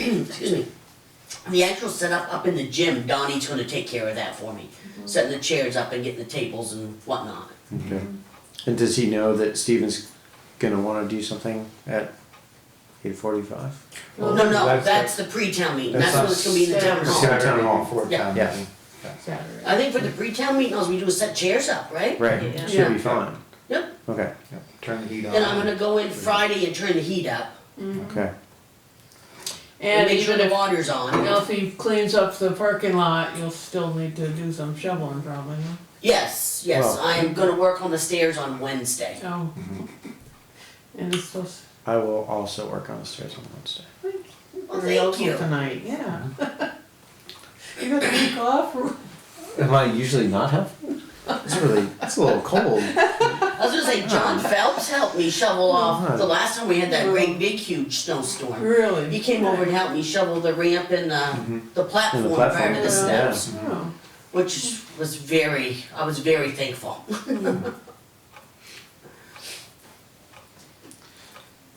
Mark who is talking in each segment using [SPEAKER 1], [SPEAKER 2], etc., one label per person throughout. [SPEAKER 1] excuse me, the actual setup up in the gym, Donnie's gonna take care of that for me. Setting the chairs up and getting the tables and whatnot.
[SPEAKER 2] Okay. And does he know that Steven's gonna wanna do something at eight forty-five?
[SPEAKER 1] No,
[SPEAKER 3] Well,
[SPEAKER 1] no,
[SPEAKER 3] that's-
[SPEAKER 1] that's the pre-town meeting, that's
[SPEAKER 2] that's
[SPEAKER 1] when it's gonna be in the town
[SPEAKER 3] not
[SPEAKER 1] hall.
[SPEAKER 2] Saturday town hall.
[SPEAKER 3] before
[SPEAKER 1] Yeah.
[SPEAKER 3] town
[SPEAKER 2] Yeah.
[SPEAKER 3] meeting.
[SPEAKER 4] Saturday.
[SPEAKER 1] I think for the pre-town meeting, all we do is set chairs up, right?
[SPEAKER 2] Right,
[SPEAKER 4] Yeah.
[SPEAKER 2] should
[SPEAKER 1] Yeah.
[SPEAKER 2] be fine.
[SPEAKER 1] Yep,
[SPEAKER 2] Okay,
[SPEAKER 3] Yeah, Turn the heat on.
[SPEAKER 1] then I'm gonna go in Friday and turn the heat up,
[SPEAKER 2] okay.
[SPEAKER 1] and
[SPEAKER 4] And
[SPEAKER 1] make sure
[SPEAKER 4] even
[SPEAKER 1] the
[SPEAKER 4] if
[SPEAKER 1] water's on.
[SPEAKER 4] Elsie cleans up the parking lot, you'll still need to do some shoveling probably, huh?
[SPEAKER 1] Yes, yes,
[SPEAKER 2] Well-
[SPEAKER 1] I am gonna work on the stairs on Wednesday.
[SPEAKER 4] Oh.
[SPEAKER 1] Mm-hmm.
[SPEAKER 4] And it's supposed
[SPEAKER 2] I will also work on the stairs on Wednesday.
[SPEAKER 1] Well,
[SPEAKER 4] to
[SPEAKER 1] thank you.
[SPEAKER 4] tonight, yeah. You got a week off or?
[SPEAKER 2] Am I usually not helpful? It's really, it's a little cold.
[SPEAKER 1] I was gonna say, John Phelps helped me shovel off, the last time we had that great big huge snowstorm.
[SPEAKER 4] Really?
[SPEAKER 1] He came over and helped me shovel the ramp and the, the platform prior
[SPEAKER 2] Mm-hmm. platform,
[SPEAKER 1] to the
[SPEAKER 2] yeah.
[SPEAKER 1] steps,
[SPEAKER 4] Oh,
[SPEAKER 1] which was very, I was very thankful.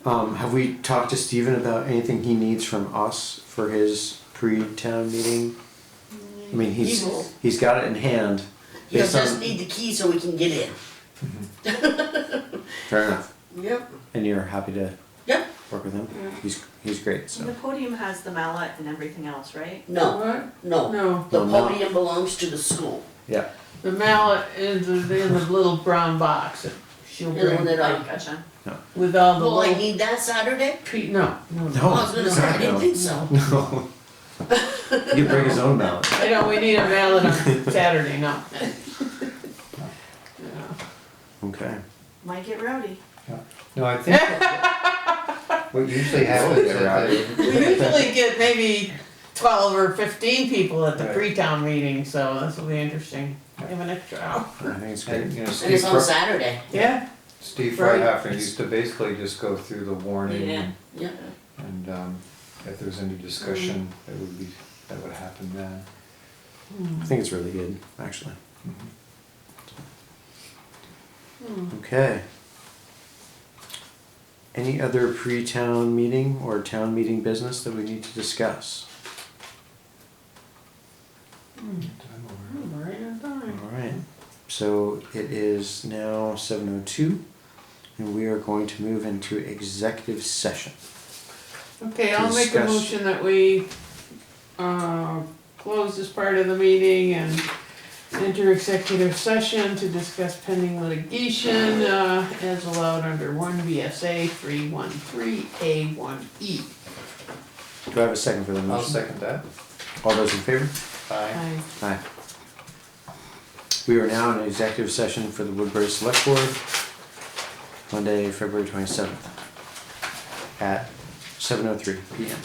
[SPEAKER 2] Um, have we talked to Steven about anything he needs from us for his pre-town meeting? I mean, he's,
[SPEAKER 1] He will.
[SPEAKER 2] he's got it in hand.
[SPEAKER 1] He'll
[SPEAKER 2] based on-
[SPEAKER 1] just need the key so we can get in.
[SPEAKER 2] Fair enough.
[SPEAKER 1] Yep.
[SPEAKER 2] And you're happy to
[SPEAKER 1] Yep,
[SPEAKER 2] work with him? He's, he's great,
[SPEAKER 5] The
[SPEAKER 2] so.
[SPEAKER 5] podium has the mallet and everything else, right?
[SPEAKER 1] no,
[SPEAKER 4] What?
[SPEAKER 1] no,
[SPEAKER 4] No,
[SPEAKER 1] the
[SPEAKER 2] No, no.
[SPEAKER 1] podium belongs to the school,
[SPEAKER 2] Yeah,
[SPEAKER 4] the mallet is in the little brown box that she'll
[SPEAKER 1] the one
[SPEAKER 4] bring
[SPEAKER 1] that
[SPEAKER 5] Oh,
[SPEAKER 1] I,
[SPEAKER 5] gotcha.
[SPEAKER 4] with all the
[SPEAKER 1] will I
[SPEAKER 4] little
[SPEAKER 1] need that Saturday?
[SPEAKER 4] pe- no, no,
[SPEAKER 2] No.
[SPEAKER 4] no.
[SPEAKER 1] I was gonna say, I didn't think so.
[SPEAKER 2] No. He could bring his own ballot.
[SPEAKER 4] I know, we need a mallet on Saturday, no. Yeah.
[SPEAKER 2] Okay.
[SPEAKER 5] Might get rowdy.
[SPEAKER 3] No, I think what usually happens is that
[SPEAKER 4] We usually get maybe twelve or fifteen people at the
[SPEAKER 3] Right.
[SPEAKER 4] pre-town meeting, so this will be interesting. We have an extra
[SPEAKER 2] I
[SPEAKER 4] hour.
[SPEAKER 2] think it's
[SPEAKER 3] And,
[SPEAKER 2] great.
[SPEAKER 3] you know,
[SPEAKER 1] And it's
[SPEAKER 3] Steve,
[SPEAKER 1] on
[SPEAKER 3] Fre-
[SPEAKER 1] Saturday,
[SPEAKER 4] Yeah.
[SPEAKER 3] Steve
[SPEAKER 4] Right.
[SPEAKER 3] Freihafner used to basically just go through the warning
[SPEAKER 5] Yeah.
[SPEAKER 3] and,
[SPEAKER 1] yeah, Mm-hmm.
[SPEAKER 3] and, um, if there's any discussion, that would be, that would happen then. Mm-hmm.
[SPEAKER 2] I think it's really good, actually. Okay. Any other pre-town meeting or town meeting business that we need to discuss?
[SPEAKER 1] Mm-hmm.
[SPEAKER 3] Time over.
[SPEAKER 4] Hmm, right on time.
[SPEAKER 2] All right. So it is now seven oh two, and we are going to move into executive session.
[SPEAKER 4] Okay, I'll make a
[SPEAKER 2] Discuss.
[SPEAKER 4] motion that we, uh, close this part of the meeting and enter executive session to discuss pending litigation, uh, as allowed under one VSA three one three A one E.
[SPEAKER 2] Do I have a second for the
[SPEAKER 3] I'll
[SPEAKER 2] motion?
[SPEAKER 3] second that.
[SPEAKER 2] All those in favor?
[SPEAKER 3] Aye.
[SPEAKER 4] I
[SPEAKER 2] Aye. We are now in executive session for the Woodbury Select Board, Monday, February twenty-seventh, at seven oh three P M.